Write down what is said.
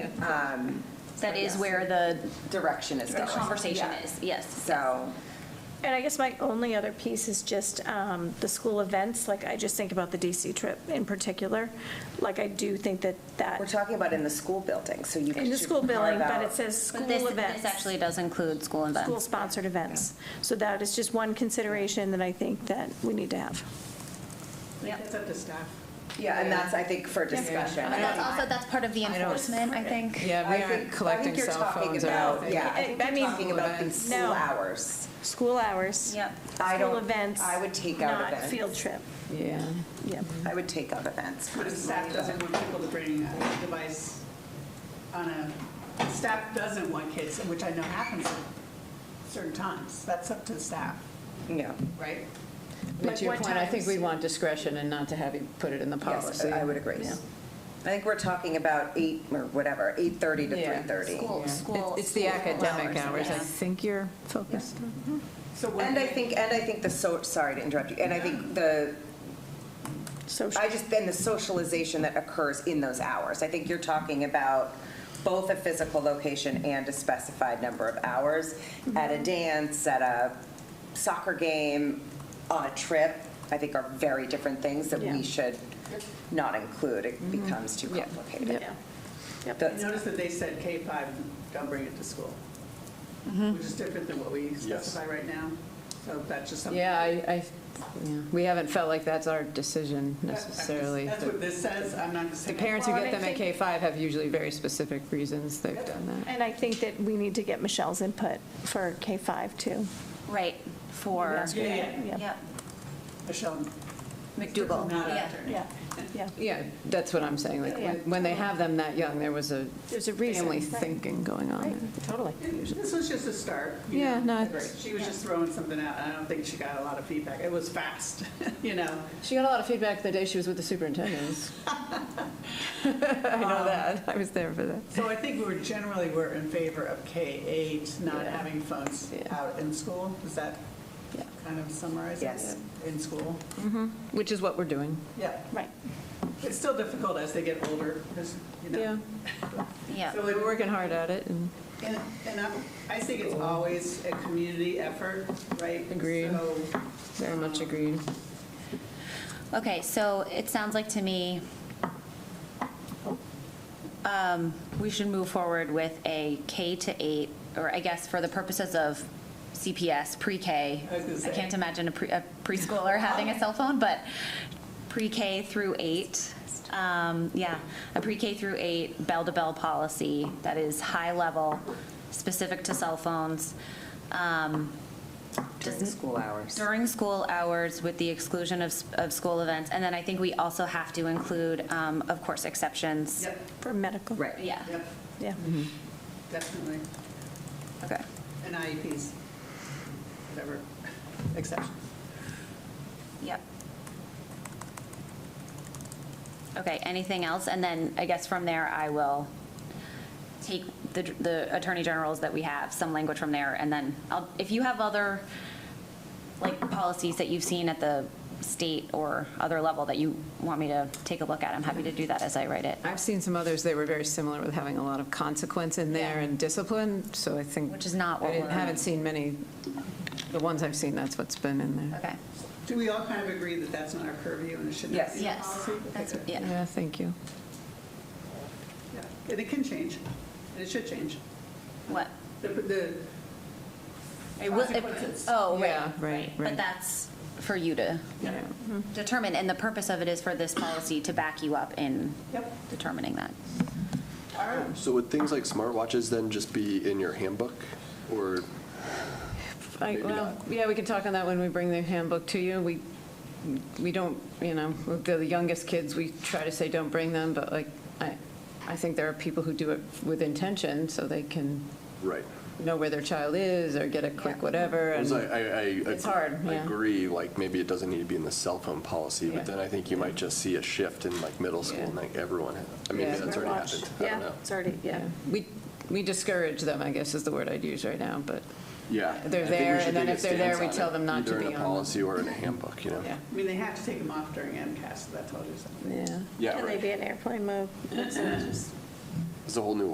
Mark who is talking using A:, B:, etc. A: um,
B: That is
A: Yes.
B: where the
A: direction is
B: the
A: going.
B: conversation
A: Yeah.
B: is, yes.
A: So,
C: And I guess my only other piece is just um, the school events, like I just think about the DC trip in particular. Like I do think that
A: we're
C: that,
A: talking about in the school building, so you.
C: in the
A: should
C: school building,
A: carve
C: but
A: out-
C: it says school
B: But this,
C: events.
B: this actually does include school events.
C: School-sponsored events. So that is just one consideration that I think that we need to have.
B: Yep.
D: It's up to staff.
A: Yeah, and that's, I think, for discussion.
B: And that's also, that's part of the
D: don't-
B: enforcement, I think.
D: Yeah,
A: I
D: we
A: think- I
D: aren't
A: think
D: collecting
A: you're
D: cell
A: talking
D: phones or
A: about-
D: anything.
A: Yeah, I
C: I-
A: think
C: I
A: you're
C: mean-
A: talking about the
D: Events.
A: school
C: No.
A: hours.
C: School hours.
B: Yep.
A: I
C: School
A: don't-
C: events.
A: I would take out
C: Not
A: events.
C: field trip.
D: Yeah.
C: Yeah.
A: I would take out events.
E: But if staff doesn't want people to bring a device on a, staff doesn't want kids, which I know happens at certain times. That's up to the staff,
A: Yeah.
E: right?
D: But
E: Like
D: to your
E: what
D: point, I think
E: times?
D: we want discretion and not to have you put it in the
A: Yes,
D: policy.
A: I would agree.
D: Yeah.
A: I think we're talking about eight, or whatever, 8:30 to
D: Yeah.
A: 3:30.
B: School, school.
D: It's- It's the
B: school
D: academic hours, I
B: yeah.
D: think you're focused on.
E: So what?
A: And I think, and I think the so, sorry to interrupt you, and I think the,
C: Social.
A: I just, then the socialization that occurs in those hours. I think you're talking about both a physical location and a specified number of hours at a
C: Mm-hmm.
A: dance, at a soccer game, on a trip, I think are very different things that we
C: Yeah. Mm-hmm.
A: should not include. It becomes too
D: Yeah.
A: complicated.
C: Yeah.
E: I
A: That's-
E: noticed that they said K-5, don't bring it to school,
D: Mm-hmm.
E: which is different than what we specify right now. So that's just something.
D: Yeah, I, I, yeah. we haven't felt like that's our decision
E: That- I'm just-
D: necessarily.
E: That's what this says, I'm not just
D: The
E: saying.
D: parents who
C: Well,
D: get
C: and
D: them
C: I
D: at K-5 have usually very specific reasons they've done that.
C: And I think that we need to get Michelle's input for K-5 too.
B: Right, for,
E: Yeah, yeah,
C: Yeah.
B: yep,
E: Michelle,
B: McDougal.
E: not
B: Yeah.
E: after.
C: Yeah, yeah.
D: Yeah, that's what I'm saying, like,
C: Yeah.
D: when- when they have them that young, there was a
C: There's a reason.
D: family
C: right.
D: thinking going on. there.
C: Totally.
E: This was just a start. you
D: Yeah,
E: know,
D: no,
E: right.
D: it's-
E: She was just throwing something out, and I don't think she got a lot of feedback. It was fast, you know?
D: She got a lot of feedback the day she was with the superintendent. I know that, I was there for that.
E: So I think we were generally, we're in favor of K-8 not
D: Yeah.
E: having phones
D: Yeah.
E: out in school. Does that
D: Yeah.
E: kind of summarize it?
A: Yes.
E: In school?
D: Which is what we're doing.
E: Yeah.
C: Right.
E: It's still difficult as they get older, because, you know.
D: Yeah,
B: yeah.
E: So
D: we're
E: it-
D: working hard at it, and
E: And, and I'm- I think it's always a community effort, right?
D: Agreed.
E: So
D: very much agreed.
B: Okay, so it sounds like to me, um, we should move forward with a K to eight, or I guess for the purposes of CPS, pre-K.
E: I was gonna
B: I
E: say.
B: can't imagine a pre- a preschooler having a cell phone, but pre-K through eight, um, yeah, a pre-K through eight bell-to-bell policy that is high-level, specific to cell phones. Um,
A: During
B: doesn't-
A: school hours.
B: during school hours with the exclusion of, s- of school events. And then I think we also have to include, um, of course, exceptions.
E: Yep,
C: For medical.
A: Right.
B: Yeah,
E: yep,
C: Yeah.
E: definitely.
B: okay.
E: And IEPs, whatever exceptions.
B: Yep. Okay, anything else? And then I guess from there, I will take the, the Attorney General's that we have, some language from there, and then I'll, if you have other, like, policies that you've seen at the state or other level that you want me to take a look at, I'm happy to do that as I write it,
D: I've seen some others, they were very similar with having a lot of consequence in there
B: Yeah.
D: and discipline, so I think.
B: Which is not what
D: I didn't-
B: we're-
D: haven't seen many, the ones I've seen, that's what's been in there.
B: okay?
E: Do we all kind of agree that that's not our purview and it should not
A: Yes.
E: be? a
B: Yes,
E: policy? Okay,
B: that's,
E: good.
B: yeah.
D: Yeah, thank you.
E: Yeah. And it can change, and it should change.
B: What?
E: The, the
B: It will- it-
E: consequences.
B: Oh, right,
D: Yeah, right,
B: right.
D: right.
B: But that's for you to
E: Yeah.
B: determine, and the purpose of it is for this policy to back you up in
E: Yep,
B: determining that.
E: all right.
F: So would things like smartwatches then just be in your handbook or?
D: I-
F: Maybe
D: Well, yeah, we can talk on that when we bring the handbook to you. We, we don't, you know, with the youngest kids, we try to say, don't bring them, but like, I, I think there are people who do it with intention, so they can
F: Right.
D: know where their child is or get a quick whatever. and-
F: Because I, I, I.
D: It's hard,
F: I
D: yeah.
F: agree, like, maybe it doesn't need to be in the cell phone policy,
D: Yeah.
F: but then I think you might just see a shift in like middle school
D: Yeah.
F: and like everyone, had- I mean,
D: Yeah.
F: maybe that's already
C: Watch.
F: happened. I don't know.
C: It's already, yeah.
D: Yeah, we, we discourage them, I guess is the word I'd use right now, but,
F: Yeah.
D: They're
F: I think we
D: there,
F: should
D: and then
F: take a
D: if they're there,
F: stance
D: we
F: on
D: tell
F: it,
D: them not to
F: Either
D: be
F: in a
D: on them.
F: policy or in a handbook, you know?
D: yeah.
E: I mean, they have to take them off during MCAS, so that tells you something.
D: Yeah.
F: Yeah,
C: Can they
F: right.
C: be in airplane mode?
E: So it's just-
F: It's a whole new